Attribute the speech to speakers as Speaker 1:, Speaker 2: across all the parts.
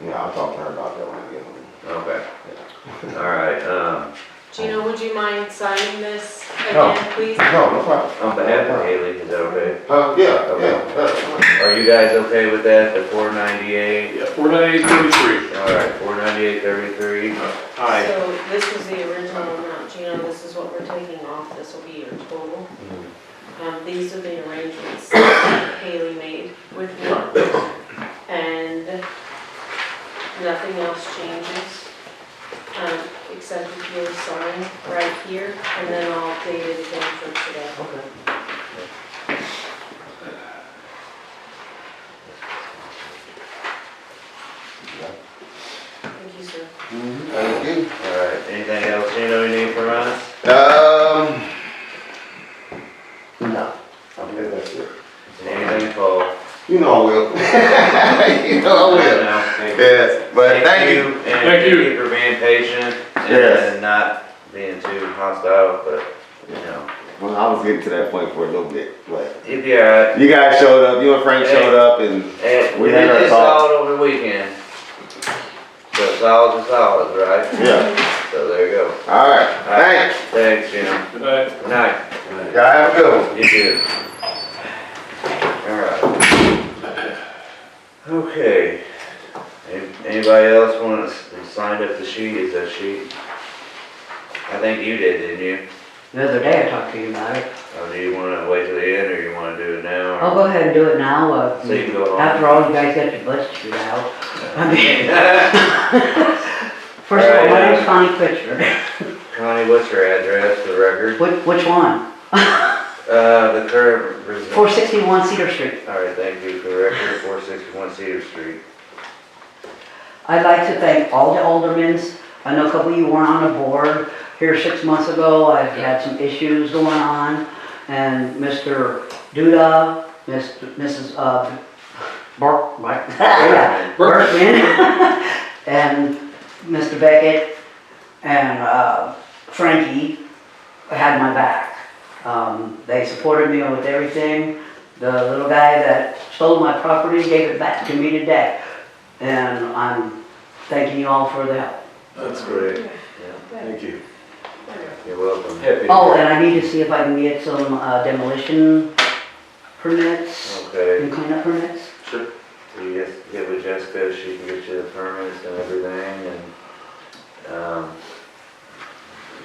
Speaker 1: Yeah, I'll talk to her about that when I get home.
Speaker 2: Okay, all right, um,
Speaker 3: Gina, would you mind signing this
Speaker 1: No.
Speaker 3: again, please?
Speaker 1: No, no problem.
Speaker 2: on behalf of Haley, is that okay?
Speaker 1: Uh, yeah, yeah, that's fine.
Speaker 2: Are you guys okay with that, the four ninety-eight?
Speaker 4: Yeah, four ninety-eight thirty-three.
Speaker 2: All right, four ninety-eight thirty-three,
Speaker 4: Aye.
Speaker 3: So this was the original amount, Gina, this is what we're taking off, this will be your total. Um, these are the arrangements that Haley made with me. And nothing else changes, um, except if you'll sign right here, and then I'll update it again for today. Thank you, sir.
Speaker 1: Thank you.
Speaker 2: all right, anything else, you know, you need from us?
Speaker 1: Um, no, I believe that's it.
Speaker 2: Anything, Paul?
Speaker 1: You know I will. You know I will.
Speaker 2: No, thank you.
Speaker 1: Yes, Oh, but thank you.
Speaker 2: And thank
Speaker 4: Thank you.
Speaker 2: you for being patient
Speaker 1: Yes.
Speaker 2: and not being too hostile, but, you know,
Speaker 1: Well, I was getting to that point for a little bit, but
Speaker 2: you'd be all right.
Speaker 1: you guys showed up, you and Frank showed up and
Speaker 2: And
Speaker 1: We
Speaker 2: we
Speaker 1: had
Speaker 2: did
Speaker 1: our
Speaker 2: this
Speaker 1: talk.
Speaker 2: all over the weekend. So solids are solids, right?
Speaker 1: Yeah,
Speaker 2: So there you go.
Speaker 1: all right, thanks.
Speaker 2: Thanks, Jim.
Speaker 4: Good night.
Speaker 2: Good night.
Speaker 1: Y'all have a good one.
Speaker 2: You too. Alright. Okay. An- Anybody else wanna, s- signed up the sheet, is that sheet? I think you did, didn't you?
Speaker 5: The other day I talked to you about it.
Speaker 2: Or do you wanna wait till the end, or you wanna do it now?
Speaker 5: I'll
Speaker 2: or-
Speaker 5: go ahead and do it now. uh,
Speaker 2: So you can go home.
Speaker 5: After all, you guys got your budget to out. I mean, first of all, my name's Connie Pitcher.
Speaker 2: Connie, what's your address, for the record?
Speaker 5: Which, which one?
Speaker 2: Uh, the current resident.
Speaker 5: Four sixty-one Cedar Street.
Speaker 2: All right, thank you for the record, four sixty-one Cedar Street.
Speaker 5: I'd like to thank all the aldermans. I know a couple of you weren't on the board here six months ago. I've had some issues going on. And Mr. Duda, Mr. Mrs. uh, Burke, right? Yeah. Berkman, and Mr. Beckett, and uh, Frankie had my back. Um, They supported me with everything. The little guy that stole my property gave it back to me today, and I'm thanking you all for the help.
Speaker 2: That's great. Thank you. You're welcome.
Speaker 5: Oh, and I need to see if I can get some uh, demolition permits
Speaker 2: Okay,
Speaker 5: and cleanup permits.
Speaker 2: so you guys get with Jessica, she can get you the permits and everything and, um,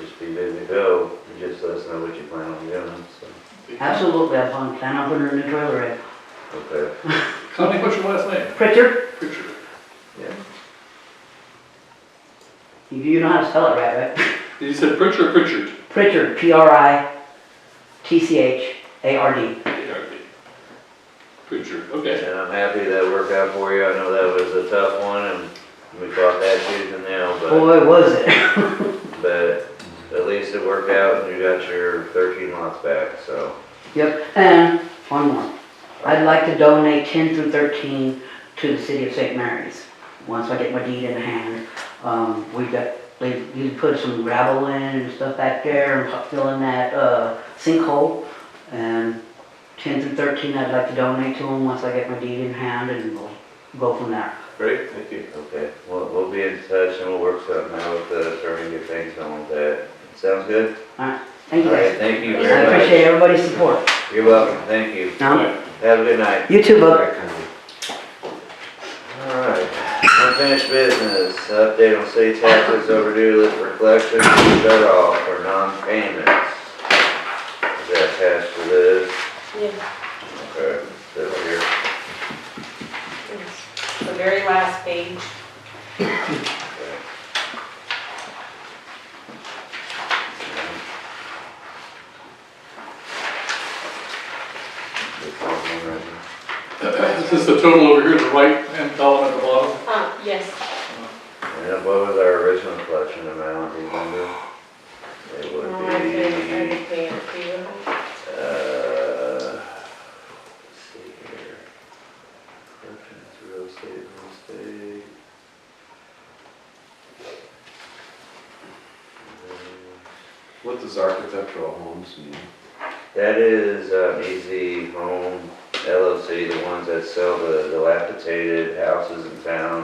Speaker 2: just be good to go, You just let us know what you plan on doing, so,
Speaker 5: Absolutely, I plan plan on putting a new trailer in.
Speaker 2: okay.
Speaker 4: Connie, what's your last name?
Speaker 5: Pritchard,
Speaker 4: Pritchard.
Speaker 5: you know how to spell it right, right?
Speaker 4: You said Pritchard, or Pritchard?
Speaker 5: Pritchard, P-R-I-T-C-H-A-R-D.
Speaker 4: A-R-D. Pritchard, okay.
Speaker 2: And I'm happy that worked out for you, I know that was a tough one and we fought that tooth and nail, but.
Speaker 5: Boy, was it.
Speaker 2: But at least it worked out and you got your thirteen lots back, so.
Speaker 5: Yep, and one more. I'd like to donate 10 through 13 to the city of St. Mary's. Once I get my deed in hand, um, we got, they, you put some gravel in and stuff back there and filling that, uh, sinkhole. And 10 through 13, I'd like to donate to them once I get my deed in hand and we'll go from there.
Speaker 2: Great, thank you. Okay, we'll, we'll be in touch and we'll work something out with the attorney, get things on with that. Sounds good?
Speaker 5: Thank you
Speaker 2: All right,
Speaker 5: guys.
Speaker 2: thank you
Speaker 5: I
Speaker 2: very much.
Speaker 5: appreciate everybody's support.
Speaker 2: You're welcome, thank you.
Speaker 5: Now,
Speaker 2: Have a good night.
Speaker 5: You too, bub.
Speaker 2: All right, unfinished business, update on city taxes overdue list for collection, shut off for non-payments. Is that attached to this?
Speaker 3: Yeah,
Speaker 2: Okay, is that here?
Speaker 3: it's the very last page.
Speaker 4: Is this the total over here, the right-hand column at the bottom?
Speaker 3: Uh, yes,
Speaker 2: And what was our original collection amount, do you remember? It
Speaker 3: I can, Oh, I
Speaker 2: would be,
Speaker 3: can pay it for you.
Speaker 2: uh, let's see here. Collections, real estate, real estate.
Speaker 6: What does architectural homes mean?
Speaker 2: That is um, Easy Home LLC, the ones that sell the dilapidated houses in town.